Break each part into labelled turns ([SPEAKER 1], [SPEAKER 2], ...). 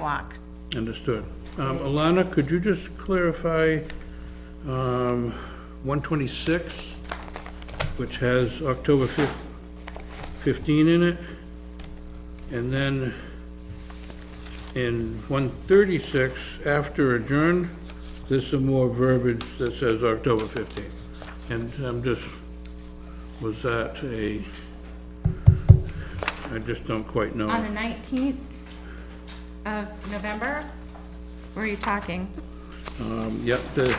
[SPEAKER 1] walk.
[SPEAKER 2] Understood. Um, Alana, could you just clarify um, 126, which has October fif- 15 in it? And then in 136, after adjourned, there's some more verbiage that says October 15th. And I'm just, was that a, I just don't quite know.
[SPEAKER 1] On the 19th of November, were you talking?
[SPEAKER 2] Um, Yep, the,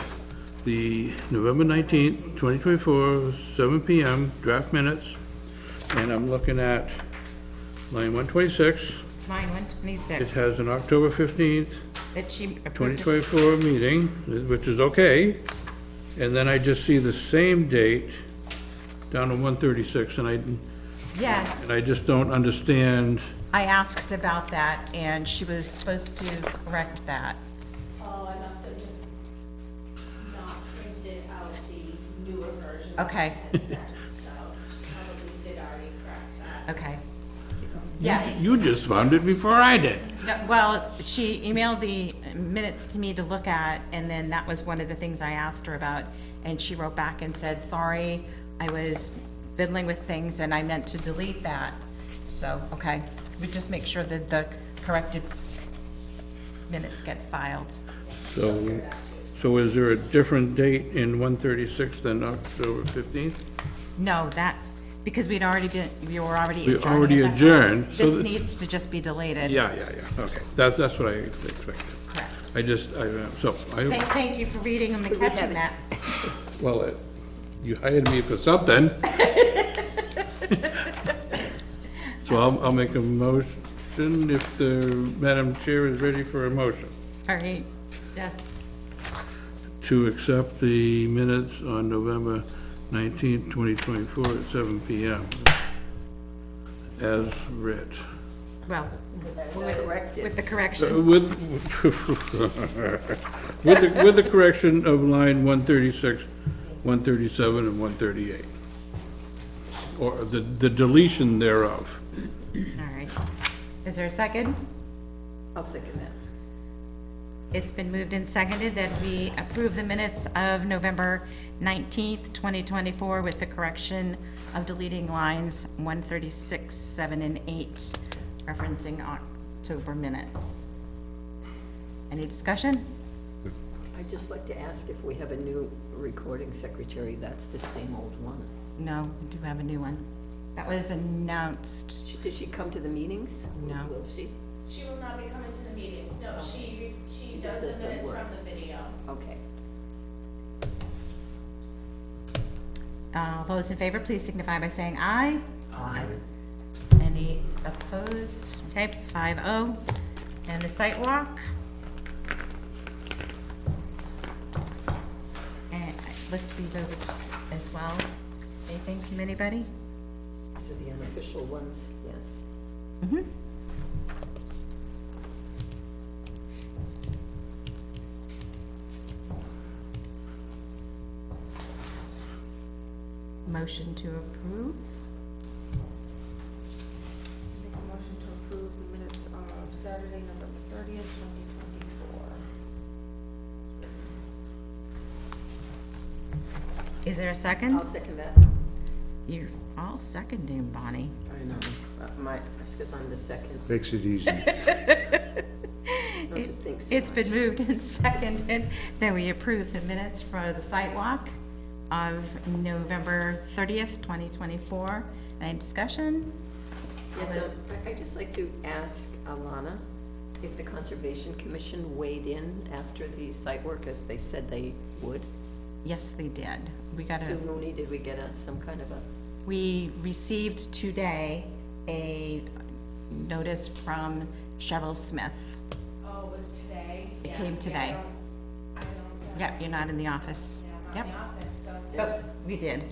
[SPEAKER 2] the November 19th, 2024, 7 PM, draft minutes, and I'm looking at line 126.
[SPEAKER 1] Line
[SPEAKER 2] It
[SPEAKER 1] 126,
[SPEAKER 2] has an October 15th,
[SPEAKER 1] that she approved. it.
[SPEAKER 2] 2024 meeting, which is okay. And then I just see the same date down to 136, and I, and
[SPEAKER 1] Yes,
[SPEAKER 2] I just don't understand.
[SPEAKER 1] I asked about that, and she was supposed to correct that.
[SPEAKER 3] Oh, I must have just not printed out the newer version. that
[SPEAKER 1] Okay.
[SPEAKER 3] I had sent, So probably did already correct that.
[SPEAKER 1] Okay. Yes.
[SPEAKER 4] You just found it before I did.
[SPEAKER 1] No, Well, she emailed the minutes to me to look at, and then that was one of the things I asked her about. And she wrote back and said, sorry, I was fiddling with things and I meant to delete that. So, okay, we just make sure that the corrected minutes get filed.
[SPEAKER 2] So, so is there a different date in 136 than October 15th?
[SPEAKER 1] No, that, because we'd already been, we were already
[SPEAKER 2] We
[SPEAKER 1] adjourned.
[SPEAKER 2] already
[SPEAKER 1] at that point.
[SPEAKER 2] adjourned, so
[SPEAKER 1] This
[SPEAKER 2] that-
[SPEAKER 1] needs to just be deleted.
[SPEAKER 2] Yeah, yeah, yeah, okay, that's, that's what I expected.
[SPEAKER 1] Correct.
[SPEAKER 2] I just, I, uh, so,
[SPEAKER 1] Thank,
[SPEAKER 2] I,
[SPEAKER 1] thank you for reading them and catching that.
[SPEAKER 2] well, uh, you hired me for something. So I'll, I'll make a motion if the Madam Chair is ready for a motion
[SPEAKER 1] All right, yes.
[SPEAKER 2] to accept the minutes on November nineteenth, twenty twenty-four at seven PM as read.
[SPEAKER 1] Well, with the correction.
[SPEAKER 2] With, with, the- with the correction of line 136, 137, and 138. Or the, the deletion thereof.
[SPEAKER 1] All right. Is there a second?
[SPEAKER 5] I'll second that.
[SPEAKER 1] It's been moved and seconded that we approve the minutes of November 19th, 2024 with the correction of deleting lines 136, 7, and 8, referencing October minutes. Any discussion?
[SPEAKER 5] I'd just like to ask if we have a new recording secretary, that's the same old one.
[SPEAKER 1] No, we do have a new one. That was announced.
[SPEAKER 5] She- Did she come to the meetings?
[SPEAKER 1] No.
[SPEAKER 5] Will she?
[SPEAKER 3] She will not be coming to the meetings. No, she, she
[SPEAKER 5] just
[SPEAKER 3] does
[SPEAKER 5] does
[SPEAKER 3] the
[SPEAKER 5] the
[SPEAKER 3] minutes
[SPEAKER 5] work.
[SPEAKER 3] from the video.
[SPEAKER 5] Okay.
[SPEAKER 1] Uh, Those in favor, please signify by saying aye. Aye. Any opposed? Okay, five oh. And the site walk? And I looked these over t- as well. Anything from anybody?
[SPEAKER 5] So the unofficial ones, yes.
[SPEAKER 1] Motion to approve?
[SPEAKER 6] Make a motion to approve the minutes of Saturday, November thirtieth, twenty twenty-four.
[SPEAKER 1] Is there a
[SPEAKER 5] I'll
[SPEAKER 1] second?
[SPEAKER 5] second that.
[SPEAKER 1] You're all seconding, Bonnie.
[SPEAKER 5] I know. Uh, My, that's because I'm the second,
[SPEAKER 4] Makes it easy.
[SPEAKER 5] not to think so
[SPEAKER 1] It's been
[SPEAKER 5] much.
[SPEAKER 1] moved and seconded that we approve the minutes for the site walk of November thirtieth, twenty twenty-four. Any discussion?
[SPEAKER 5] Yeah, so I- I'd just like to ask Alana if the Conservation Commission weighed in after the site work as they said they would.
[SPEAKER 1] Yes, they did. We got
[SPEAKER 5] Sue
[SPEAKER 1] a,
[SPEAKER 5] Mooney, did we get a, some kind of a,
[SPEAKER 1] we received today a notice from Cheryl Smith.
[SPEAKER 3] Oh, it was today?
[SPEAKER 1] It came
[SPEAKER 3] Yes, yeah, I
[SPEAKER 1] today.
[SPEAKER 3] don't- I don't,
[SPEAKER 1] Yep, you're not in the office.
[SPEAKER 3] I'm
[SPEAKER 1] Yep,
[SPEAKER 3] not in the office, so.
[SPEAKER 1] but we did.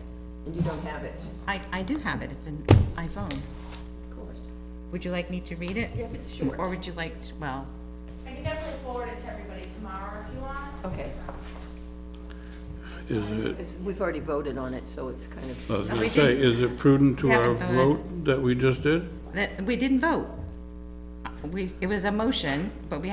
[SPEAKER 5] and you don't have it?
[SPEAKER 1] I, I do have it. It's an iPhone.
[SPEAKER 5] Of course.
[SPEAKER 1] Would you like me to read it?
[SPEAKER 5] Yeah, if it's short.
[SPEAKER 1] Or would you like, to- well,
[SPEAKER 3] I can definitely forward it to everybody tomorrow if you want.
[SPEAKER 5] Okay.
[SPEAKER 2] Is it,
[SPEAKER 5] Because we've already voted on it, so it's kind
[SPEAKER 2] I
[SPEAKER 5] of,
[SPEAKER 2] was
[SPEAKER 1] No, we
[SPEAKER 2] gonna say, is it prudent to
[SPEAKER 1] We
[SPEAKER 2] our
[SPEAKER 1] haven't voted.
[SPEAKER 2] vote that we just did?
[SPEAKER 1] that, we didn't vote. we, it was a motion, but we